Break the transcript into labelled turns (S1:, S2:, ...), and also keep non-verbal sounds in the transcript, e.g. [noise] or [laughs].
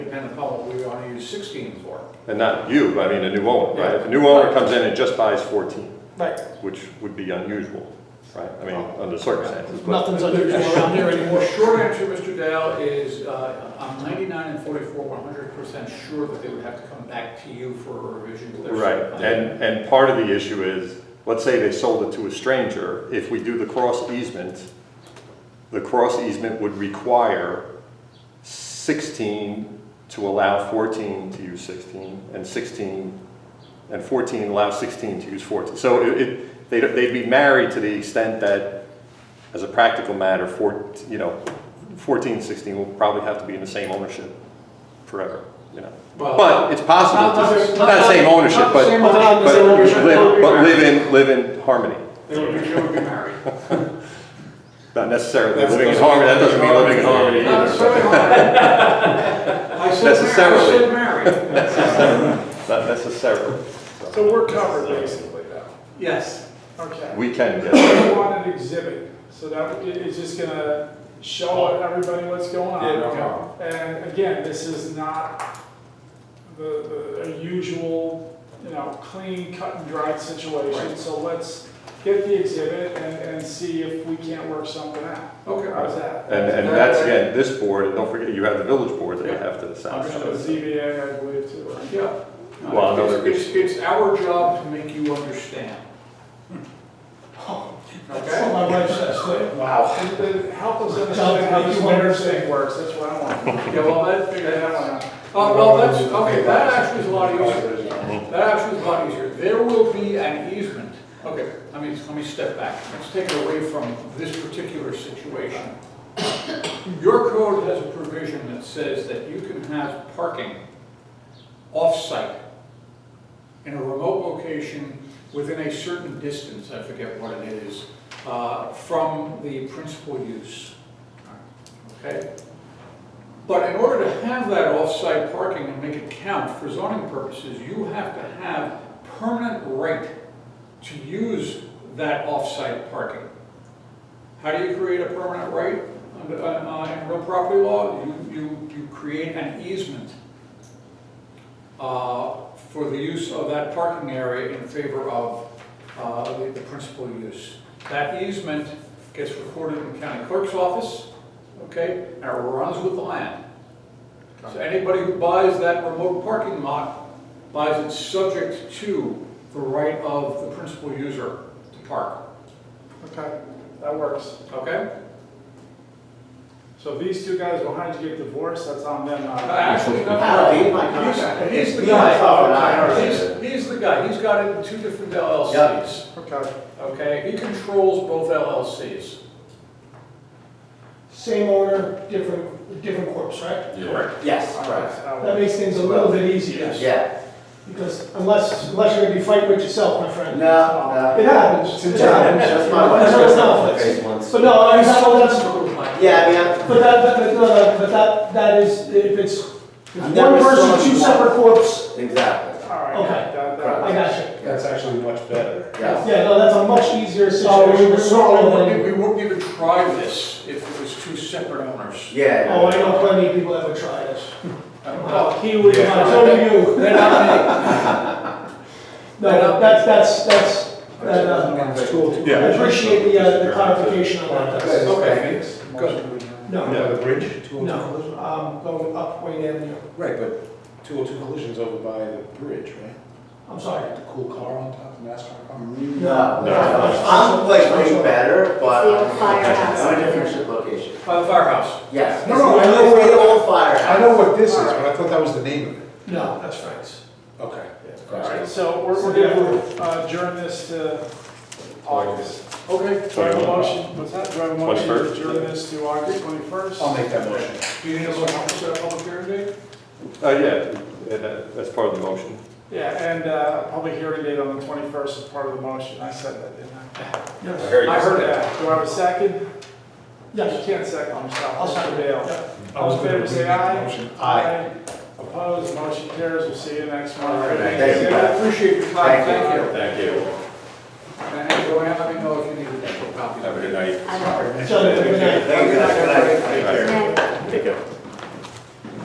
S1: Depending upon what we want to use sixteen for.
S2: And not you, but I mean a new owner, right?
S1: Yeah.
S2: If a new owner comes in and just buys 14,
S1: Right.
S2: which would be unusual, right? I mean, under circumstances, but
S3: Nothing's unusual around here
S1: Well,
S3: anymore.
S1: short answer, Mr. Dow, is uh, I'm ninety-nine and forty-four, one hundred percent sure that they would have to come back to you for a revision to their.
S2: Right,
S1: site plan.
S2: and, and part of the issue is, let's say they sold it to a stranger, if we do the cross easement, the cross easement would require sixteen to allow fourteen to use sixteen, and sixteen, and fourteen allow sixteen to use fourteen. So it- it, they'd, they'd be married to the extent that, as a practical matter, four, you know, fourteen, sixteen will probably have to be in the same ownership forever, you know.
S1: Well-
S2: But it's possible,
S1: Not- not
S2: to-
S1: the-
S2: not the same ownership,
S1: not the
S2: but.
S1: same
S3: but-
S1: ownership.
S2: But
S3: Same ownership.
S2: live, but live in, live in harmony,
S1: They would be, they would be
S2: [laughs]
S1: married.
S2: not necessarily
S4: That's-
S2: living in
S4: that's-
S2: harmony, that doesn't mean living in harmony
S1: Not
S2: either.
S1: necessarily married. I said, mar- I
S2: Necessarily.
S1: said married.
S2: Not necessarily.
S4: So we're covered basically now.
S1: Yes.
S4: Okay.
S2: We can get,
S4: We want an exhibit, so that it- it's just gonna show everybody what's going on.
S1: Yeah, no problem.
S4: And again, this is not the, the usual, you know, clean, cut and dried situation.
S1: Right.
S4: So let's get the exhibit and, and see if we can't work something out.
S1: Okay.
S4: How's that?
S2: and, and that's again, this board, and don't forget, you have the village board that you have to
S1: Understood.
S2: decide.
S4: The ZBA, I believe, too. right?
S1: Yeah. No,
S2: Well, another-
S1: It's, it's it's our job to make you understand.
S2: Hmm.
S4: Okay?
S3: That's what my wife says, too.
S1: Wow.
S4: And then help us
S3: Tell them
S4: understand
S3: how
S4: how this
S3: you want
S4: winter
S3: it.
S4: thing works, that's what I want. [laughs]
S1: Yeah, well, that,
S4: Figure that one out.
S1: Oh, well, that's, okay, that actually is a lot easier. That actually is a lot easier. There will be an easement. Okay, let me, let me step back. Let's take it away from this particular situation. Your code has a provision that says that you can have parking off-site in a remote location within a certain distance, I forget what it is, uh, from the principal use. Okay? But in order to have that off-site parking and make it count for zoning purposes, you have to have permanent right to use that off-site parking. How do you create a permanent right under- uh, uh, in real property law? You, you, you create an easement uh, for the use of that parking area in favor of uh, the the principal use. That easement gets recorded in the county clerk's office, okay, and it runs with the land. So anybody who buys that remote parking lot buys it subject to the right of the principal user to park,
S4: Okay, that works.
S1: okay?
S4: So if these two guys behind you get divorced, that's on them, uh, not
S1: Actually, no,
S5: I read my
S1: he's-
S5: contract.
S1: He's the
S5: Yeah, I saw it. I
S1: guy,
S5: already
S1: he's,
S5: did.
S1: he's the guy, he's got it in two different LLCs.
S4: Okay,
S1: Okay, he controls both LLCs.
S3: Same owner, different, different corpse, right?
S1: Correct.
S5: Yes, correct.
S3: That
S4: alright.
S3: makes things a little bit easier.
S5: Yeah.
S3: Because unless, unless you're gonna be fighting with yourself, my
S5: No,
S3: friend.
S5: no.
S3: It happens. It happens.
S5: Just my wife.
S3: That's what it's not.
S5: Face once.
S3: But no, I so that's,
S5: Yeah, I mean, I'm-
S3: but that, but, but, no, no, but that, that is, if it's, if
S5: I
S3: one
S5: never saw
S3: person, two
S5: it.
S3: separate corpse,
S5: exactly.
S4: Alright,
S3: Okay.
S4: that, that-
S3: I
S4: that,
S3: got you.
S6: That's actually much better.
S5: Yes.
S3: Yeah, no, that's a much easier
S1: So we
S3: situation to solve
S1: wouldn't,
S3: than.
S1: we wouldn't even try this if it was two separate owners.
S5: Yeah.
S3: Oh, I know plenty of people that would try this.
S1: Uh,
S3: He would,
S4: Yeah.
S3: I'm telling you.
S1: They're not
S3: No, that's, that's, that's, that, uh,
S1: many.
S3: I appreciate the, uh, the clarification on
S5: Good.
S3: that.
S1: Okay, good.
S4: Motion.
S3: No,
S6: Yeah, the bridge, two oh two
S3: no,
S6: collision.
S3: um, going up Wayne Avenue,
S6: Right, but two oh two collision's over by the bridge, right?
S3: I'm sorry.
S6: The cool car on top, the NASCAR car.
S5: No, no. I'm like way better, but.
S7: It's the old firehouse.
S5: I'm in a different shit location.
S1: By the firehouse.
S5: Yes.
S6: No, no, I
S5: It's
S6: know where-
S5: the old firehouse.
S6: I know what this is, but I thought that was the name of it.
S3: No, that's Frank's.
S6: Okay.
S4: alright, so we're, we're gonna uh, adjourn this to August.
S1: Okay.
S4: Do I have a motion, what's that, do I have a motion to
S2: 21st?
S4: adjourn this to August twenty-first?
S6: I'll make that motion.
S1: Do you need a motion to set a public hearing date?
S2: Uh, yeah, yeah, that- that's part of the motion.
S4: Yeah, and, uh, public hearing date on the twenty-first is part of the motion, I said that, didn't I?
S3: Yes.
S2: Very
S1: I heard it.
S4: Yeah. Do I have a second? You
S3: Yes.
S4: can't second yourself.
S3: I'll second.
S4: Dale. All in favor, say aye.
S6: Aye.
S4: Opposed, motion carries, we'll see you next month.
S5: Thank you.
S1: I appreciate your time, thank you.
S2: Thank you.
S1: And hey, Joanne, let me know if you need an extra copy.
S2: Have a good night.
S7: I know.
S3: So, good night.
S5: Thank you. Good night.
S7: And